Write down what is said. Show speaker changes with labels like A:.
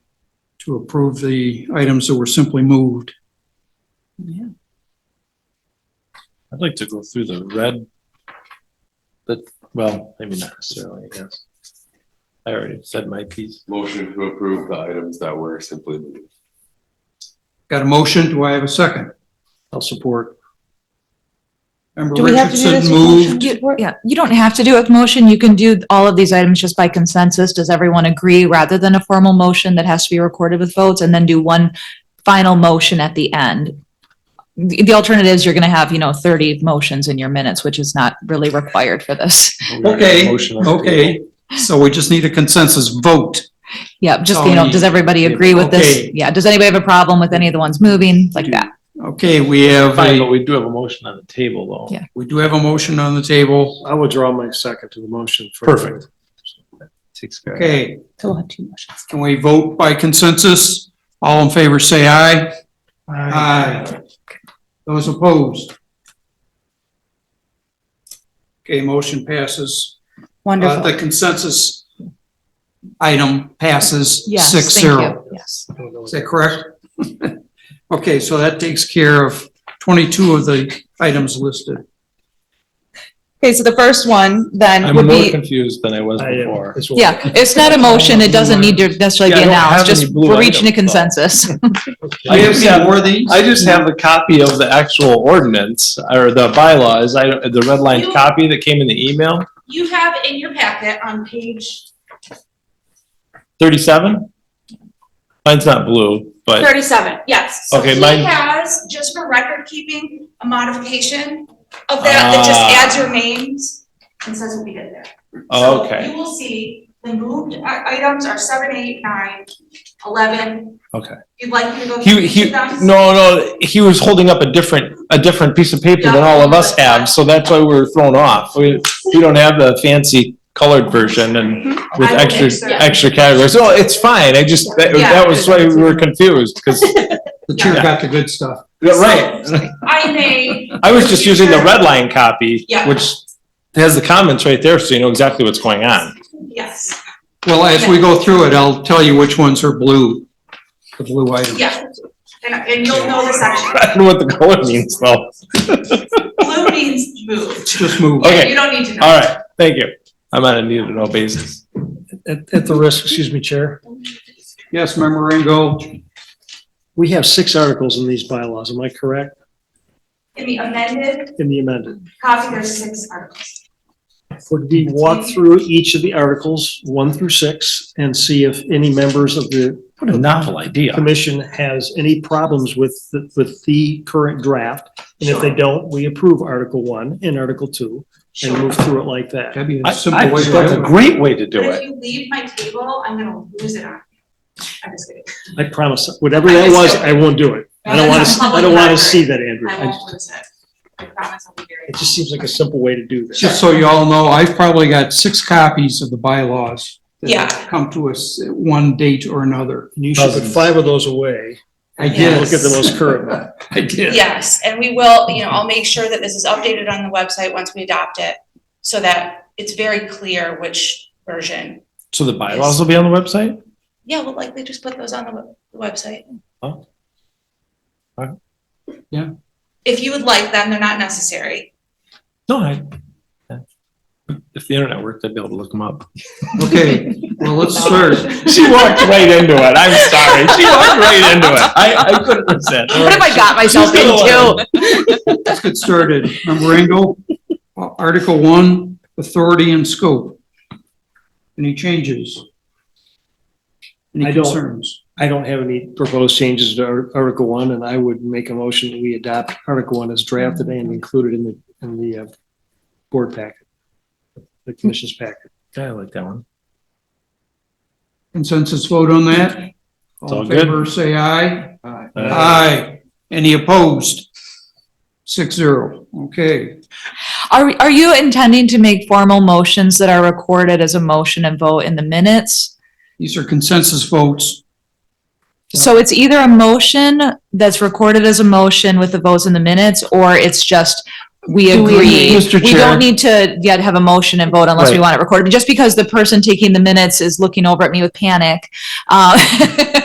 A: to approve the items that were simply moved.
B: I'd like to go through the red. But, well, maybe not necessarily, I guess. I already said my piece.
C: Motion to approve the items that were simply moved.
A: Got a motion? Do I have a second?
B: I'll support.
A: Member
D: Do we have to do this
A: Richardson
D: with motion?
A: moved.
D: Just
E: You,
D: work-
E: yeah, you don't have to do a motion. You can do all of these items just by consensus. Does everyone agree rather than a formal motion that has to be recorded with votes and then do one final motion at the end? The, the alternative is you're going to have, you know, 30 motions in your minutes, which is not really required for this.
A: Okay,
B: Motion on the
A: okay. So we just need a consensus vote.
E: Yeah, just, you know, does everybody agree with this?
A: Okay.
E: Yeah, does anybody have a problem with any of the ones moving like that?
A: Okay, we have,
B: Fine, but
A: a-
B: we do have a motion on the table, though.
E: Yeah.
A: we do have a motion on the table.
F: I withdraw my second to the motion. for-
B: Perfect.
C: Six. guys.
A: Okay,
D: So we'll have two motions.
A: can we vote by consensus? All in favor, say aye. Aye. Those opposed? Okay, motion passes. Uh,
D: Wonderful.
A: The consensus item passes
E: Yes,
A: six
E: thank you.
A: zero.
E: Yes.
A: Is that correct? Okay, so that takes care of 22 of the items listed.
D: Okay, so the first one then
B: I'm
D: would
B: more
D: be,
B: confused than I was
F: I am
B: before.
F: as well.
E: Yeah, it's not a motion. It doesn't need to necessarily be
B: Yeah, I don't have
E: announced. Just
B: any blue
E: we're reaching a
B: items, though.
E: consensus.
A: Do you have any more of these?
B: I just have a copy of the actual ordinance or the bylaws, I, the red line
G: You-
B: copy that came in the email,
G: You have in your packet on page
B: thirty-seven? Mine's not blue, but,
G: thirty-seven, yes. So
B: Okay,
G: he
B: mine-
G: Has, just for record keeping, a modification of that, that just
B: Ah.
G: adds your names and says what we did there. So
B: okay,
G: You will see the moved i- items are seven, eight, nine, eleven.
B: Okay.
G: If you'd like me to go.
B: he, he,
G: through them.
B: no, no, he was holding up a different, a different piece of paper than all of us have, so that's why we were thrown off. We, we don't have the fancy colored version and with
G: I will
B: extra,
G: make sure.
B: extra categories, so it's fine, I just, that,
G: Yeah.
B: that was why we were confused, because,
A: The chair got the good stuff.
B: right.
G: I may,
B: I was just using the red line copy,
G: Yeah.
B: which has the comments right there, so you know exactly what's going on.
G: yes,
A: Well, as we go through it, I'll tell you which ones are blue, the blue items.
G: yeah, and, and you'll know the section.
B: I don't know what the color means though.
G: Blue means moved.
A: Just move.
B: Okay.
G: You don't need to know.
B: All right, thank you. I'm on a need to know basis.
F: At, at the risk, excuse me, Chair,
A: Yes, member Ringo,
F: we have six articles in these bylaws, am I correct?
G: In the amended
F: In the amended.
G: copy, there's six articles.
F: Would we walk through each of the articles, one through six, and see if any members of the
B: What a novel idea.
F: commission has any problems with, the- with the current draft? And if they
G: Sure.
F: don't, we approve Article One and Article Two and move through it like that.
A: that'd be
B: I,
A: a simple
B: I
A: way
B: think that's a
A: to do it.
B: great way to do
G: But
B: it.
G: if you leave my table, I'm gonna lose it on you. I'm just kidding.
F: I promise, whatever that was, I won't do it. I don't want to, I don't want to see that, Andrew.
G: I
F: I
G: won't
F: just-
G: lose it. I promise I'll be very.
F: It just seems like a simple way to do this.
A: Just so you all know, I've probably got six copies of the bylaws. that
G: Yeah.
A: Come to us at one date or another.
F: And you should put five of those away.
A: I
F: and
A: did,
F: Look at the most current one.
A: I did.
G: Yes, and we will, you know, I'll make sure that this is updated on the website once we adopt it, so that it's very clear which version.
B: So the bylaws will be on the website?
G: Yeah, we'll likely just put those on the web- the website.
B: Oh. Alright.
A: Yeah.
G: If you would like them, they're not necessary.
B: No, I. If the internet worked, I'd be able to look them up.
A: Okay, well, let's start.
B: She walked right into it. I'm sorry. She walked right into it. I, I couldn't resist.
E: What have I got myself
B: She's the one.
E: into?
A: Let's get started. Member Ringo, Article One, Authority and Scope. Any changes? Any
F: I don't.
A: concerns?
F: I don't have any proposed changes to Ar- Article One, and I would make a motion that we adopt Article One as drafted and included in the, in the uh, board packet, the commission's packet.
B: Yeah, I like that one.
A: Consensus vote on that? All
B: all
A: in
B: good.
A: favor, say aye.
B: Uh,
A: Aye. Any opposed? Six zero. Okay.
E: Are, are you intending to make formal motions that are recorded as a motion and vote in the minutes?
A: These are consensus votes.
E: So it's either a motion that's recorded as a motion with the votes in the minutes, or it's just we
A: Do we-
E: agree.
B: Mr.
E: We
B: Chair.
E: don't need to yet have a motion and vote unless we
B: Right.
E: want it recorded. Just because the person taking the minutes is looking over at me with panic, uh,